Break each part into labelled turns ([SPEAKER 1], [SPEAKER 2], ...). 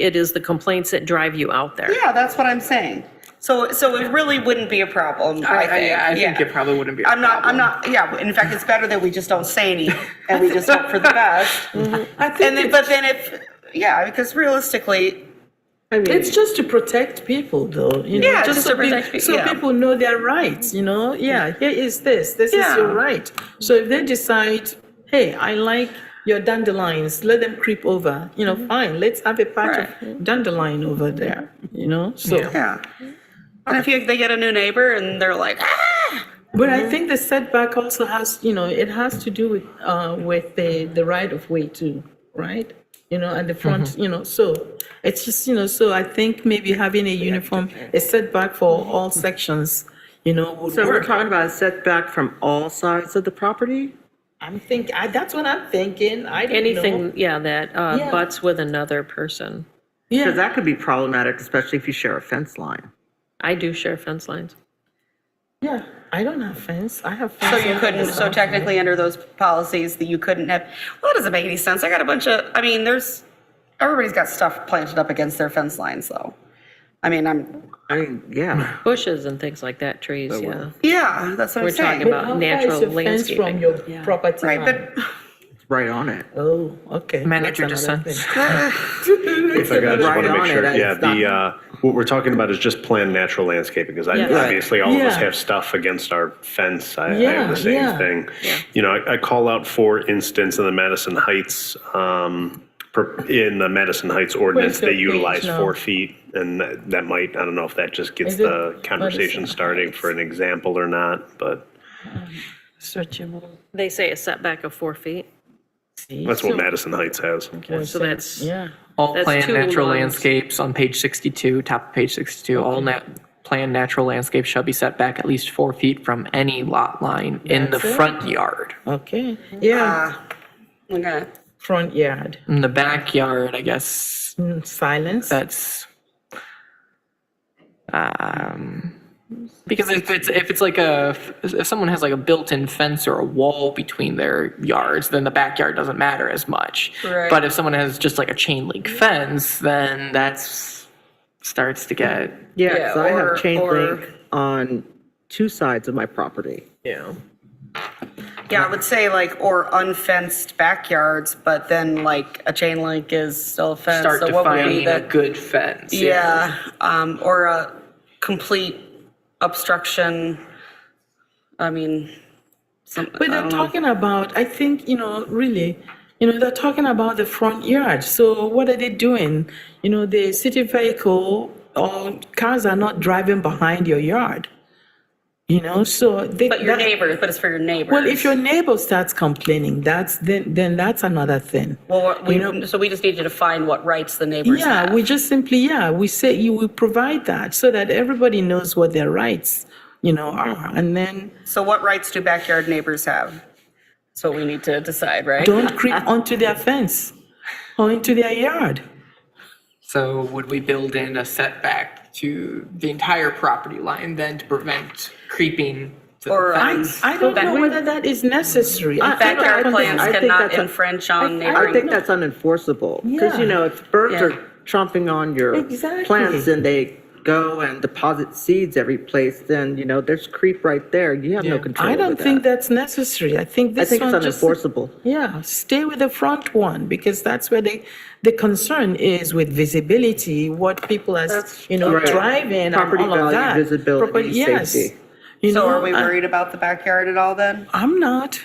[SPEAKER 1] It is the complaints that drive you out there.
[SPEAKER 2] Yeah, that's what I'm saying. So, so it really wouldn't be a problem, I think.
[SPEAKER 3] I, I think
[SPEAKER 2] Yeah.
[SPEAKER 3] it probably wouldn't be. a
[SPEAKER 2] I'm not, I'm
[SPEAKER 3] problem.
[SPEAKER 2] not, yeah, in fact, it's better that we just don't say any and we just hope for the best.
[SPEAKER 3] I
[SPEAKER 2] And
[SPEAKER 3] think
[SPEAKER 2] then,
[SPEAKER 3] it-
[SPEAKER 2] but then if, yeah, because realistically,
[SPEAKER 3] I mean,
[SPEAKER 4] It's just to protect people, though. You know,
[SPEAKER 2] Yeah, just
[SPEAKER 4] so,
[SPEAKER 2] to protect
[SPEAKER 4] pe-
[SPEAKER 2] peo-
[SPEAKER 4] so
[SPEAKER 2] yeah. Mm.
[SPEAKER 4] people know their rights. You know, yeah. Here is this. This
[SPEAKER 2] Yeah.
[SPEAKER 4] is your right. So if they decide, hey, I like your dandelions, let them creep over. You know,
[SPEAKER 2] Mm-hmm.
[SPEAKER 4] fine. Let's have a patch of dandelion over there. You know, so.
[SPEAKER 2] yeah. And if you, they get a new neighbor and they're like, ah,
[SPEAKER 4] But I think the setback also has, you know, it has to do with uh, with the the right of way too, right? You know, at the front,
[SPEAKER 5] Mm-hmm.
[SPEAKER 4] you know, so it's just, you know, so I think maybe having a uniform, a setback for all sections, you know, would
[SPEAKER 5] So we're
[SPEAKER 4] work.
[SPEAKER 5] talking about a setback from all sides of the property?
[SPEAKER 4] I'm think I, that's what I'm thinking. I don't know.
[SPEAKER 1] Anything, yeah, that uh,
[SPEAKER 4] Yeah.
[SPEAKER 1] butts with another person.
[SPEAKER 5] Because
[SPEAKER 4] Yeah,
[SPEAKER 5] that could be problematic, especially if you share a fence line.
[SPEAKER 1] I do share fence lines.
[SPEAKER 4] yeah. I don't have fence. I have
[SPEAKER 2] so
[SPEAKER 4] fence.
[SPEAKER 2] you
[SPEAKER 4] on
[SPEAKER 2] couldn't,
[SPEAKER 4] the
[SPEAKER 2] so
[SPEAKER 4] outside.
[SPEAKER 2] technically under those policies that you couldn't have, well, that doesn't make any sense. I got a bunch of, I mean, there's, everybody's got stuff planted up against their fence lines though. I mean, I'm,
[SPEAKER 5] I mean, yeah.
[SPEAKER 1] Bushes and things like that, trees, yeah.
[SPEAKER 2] yeah, that's what I'm
[SPEAKER 1] We're talking
[SPEAKER 2] saying.
[SPEAKER 4] But
[SPEAKER 1] about
[SPEAKER 4] how far is
[SPEAKER 1] natural
[SPEAKER 4] your fence From
[SPEAKER 1] landscaping.
[SPEAKER 4] your property
[SPEAKER 2] Right,
[SPEAKER 4] line?
[SPEAKER 2] but
[SPEAKER 5] It's right on it.
[SPEAKER 4] Oh, okay.
[SPEAKER 6] Manager
[SPEAKER 4] That's
[SPEAKER 6] just
[SPEAKER 4] another
[SPEAKER 6] said-
[SPEAKER 4] thing.
[SPEAKER 7] If I got, I just want
[SPEAKER 5] Right
[SPEAKER 7] to
[SPEAKER 5] on
[SPEAKER 7] make
[SPEAKER 5] it,
[SPEAKER 7] sure, yeah,
[SPEAKER 5] it's not-
[SPEAKER 7] the, uh, what we're talking about is just planned natural landscaping, because I,
[SPEAKER 1] Yeah.
[SPEAKER 7] obviously, all of us
[SPEAKER 4] Yeah.
[SPEAKER 7] have stuff against our fence. I, I
[SPEAKER 4] Yeah,
[SPEAKER 7] have the same
[SPEAKER 4] yeah.
[SPEAKER 7] thing. You know, I, I call out, for instance, in the Madison Heights, um, per- in the Madison Heights ordinance,
[SPEAKER 4] your
[SPEAKER 7] they
[SPEAKER 4] page
[SPEAKER 7] utilize
[SPEAKER 4] now?
[SPEAKER 7] four feet, and that, that might, I don't know if that just gets
[SPEAKER 4] Is it
[SPEAKER 7] the
[SPEAKER 4] Madison
[SPEAKER 7] conversation starting for an example or not, but
[SPEAKER 6] Searchable.
[SPEAKER 1] They say a setback of four feet,
[SPEAKER 7] that's what Madison Heights has.
[SPEAKER 1] so that's,
[SPEAKER 4] Yeah.
[SPEAKER 6] All
[SPEAKER 1] That's
[SPEAKER 6] planned
[SPEAKER 1] two
[SPEAKER 6] natural
[SPEAKER 1] lines.
[SPEAKER 6] landscapes on page 62, top of page 62, all nat- planned natural landscapes shall be set back at least four feet from any lot line in the
[SPEAKER 4] That's it.
[SPEAKER 6] front yard.
[SPEAKER 4] Okay. Yeah.
[SPEAKER 2] Ah, okay.
[SPEAKER 4] Front yard.
[SPEAKER 6] In the backyard, I guess
[SPEAKER 4] Mm, Silence.
[SPEAKER 6] that's um, because if it's if it's like a if someone has like a built-in fence or a wall between their yards, then the backyard doesn't matter as much.
[SPEAKER 2] Right.
[SPEAKER 6] But if someone has just like a chain link fence, then that's starts to get
[SPEAKER 5] Yeah,
[SPEAKER 2] Yeah,
[SPEAKER 5] 'cause I
[SPEAKER 2] or-
[SPEAKER 5] have chain
[SPEAKER 2] or-
[SPEAKER 5] link on two sides of my property.
[SPEAKER 6] yeah.
[SPEAKER 2] Yeah, I would say like, or unfenced backyards, but then like a chain link is still a fence.
[SPEAKER 6] start
[SPEAKER 2] So what would be
[SPEAKER 6] defining a
[SPEAKER 2] that?
[SPEAKER 6] good fence.
[SPEAKER 2] Yeah, um, or a complete obstruction. I mean, some. I
[SPEAKER 4] But they're
[SPEAKER 2] don't know.
[SPEAKER 4] talking about, I think, you know, really, you know, they're talking about the front yard. So what are they doing? You know, the city vehicle or cars are not driving behind your yard. You know, so they.
[SPEAKER 2] But your
[SPEAKER 4] that-
[SPEAKER 2] neighbor, but it's for your neighbor.
[SPEAKER 4] Well, if your neighbor starts complaining, that's then then that's another thing.
[SPEAKER 2] Well, we,
[SPEAKER 4] you know-
[SPEAKER 2] so we just need to define what rights the neighbors have.
[SPEAKER 4] Yeah, we just simply, yeah, we say you will provide that so that everybody knows what their rights, you know, are. And then
[SPEAKER 2] So what rights do backyard neighbors have? That's what we need to decide, right?
[SPEAKER 4] don't creep onto their fence or into their yard.
[SPEAKER 6] So would we build in a setback to the entire property line then to prevent creeping to
[SPEAKER 2] Or,
[SPEAKER 6] the
[SPEAKER 2] um,
[SPEAKER 6] fence?
[SPEAKER 4] I don't know whether that is
[SPEAKER 5] Ah,
[SPEAKER 4] necessary. I- I don't- I
[SPEAKER 2] Backyard
[SPEAKER 4] don't think-
[SPEAKER 2] plans
[SPEAKER 5] I think
[SPEAKER 2] cannot
[SPEAKER 5] that's a-
[SPEAKER 2] infringe on neighboring.
[SPEAKER 5] I think that's unenforceable, because,
[SPEAKER 4] Yeah.
[SPEAKER 5] you know, if birds
[SPEAKER 2] Yeah.
[SPEAKER 5] are tromping on your
[SPEAKER 4] Exactly.
[SPEAKER 5] plants and they go and deposit seeds every place, then, you know, there's creep right there. You have no control
[SPEAKER 4] I
[SPEAKER 5] over
[SPEAKER 4] don't think
[SPEAKER 5] that.
[SPEAKER 4] that's necessary. I think
[SPEAKER 5] I
[SPEAKER 4] this
[SPEAKER 5] think it's
[SPEAKER 4] one just.
[SPEAKER 5] unenforceable.
[SPEAKER 4] Yeah, stay with the front one because that's where the, the concern is with visibility, what people are, you know,
[SPEAKER 5] right.
[SPEAKER 4] driving and
[SPEAKER 5] Property
[SPEAKER 4] all of
[SPEAKER 5] value,
[SPEAKER 4] that.
[SPEAKER 5] visibility,
[SPEAKER 4] Property- yes.
[SPEAKER 5] safety.
[SPEAKER 4] You
[SPEAKER 2] So are
[SPEAKER 4] know,
[SPEAKER 2] we
[SPEAKER 4] I-
[SPEAKER 2] worried about the backyard at all then?
[SPEAKER 4] I'm not.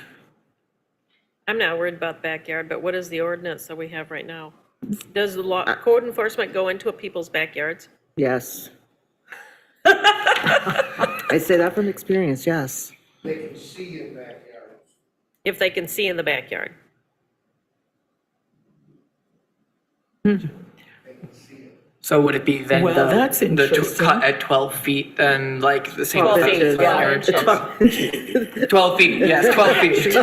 [SPEAKER 1] I'm not worried about backyard, but what is the ordinance that we have right now? Does the law, code enforcement go into people's backyards?
[SPEAKER 5] Yes. I say that from experience, yes.
[SPEAKER 8] they can see in backyards.
[SPEAKER 1] If they can see in the backyard?
[SPEAKER 6] So would it be then
[SPEAKER 4] Well,
[SPEAKER 6] the,
[SPEAKER 4] that's
[SPEAKER 6] the tw-
[SPEAKER 4] interesting.
[SPEAKER 6] cut at 12 feet then like the same
[SPEAKER 2] 12
[SPEAKER 6] fence
[SPEAKER 2] feet,
[SPEAKER 6] as
[SPEAKER 2] yeah.
[SPEAKER 5] It's
[SPEAKER 6] front yard?
[SPEAKER 5] fun.
[SPEAKER 6] 12 feet, yes, 12 feet.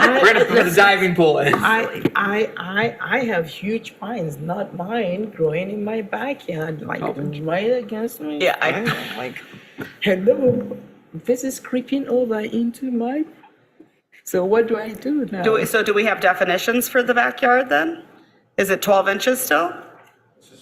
[SPEAKER 6] We're going to put a diving pool in.
[SPEAKER 4] I, I, I, I have huge pines, not mine, growing in my backyard, like right against me.
[SPEAKER 2] Oh. Yeah, I-
[SPEAKER 4] I'm like, hello, this is creeping over into my. So what do I do now?
[SPEAKER 2] Do we, so do we have definitions for the backyard then? Is it 12 inches still?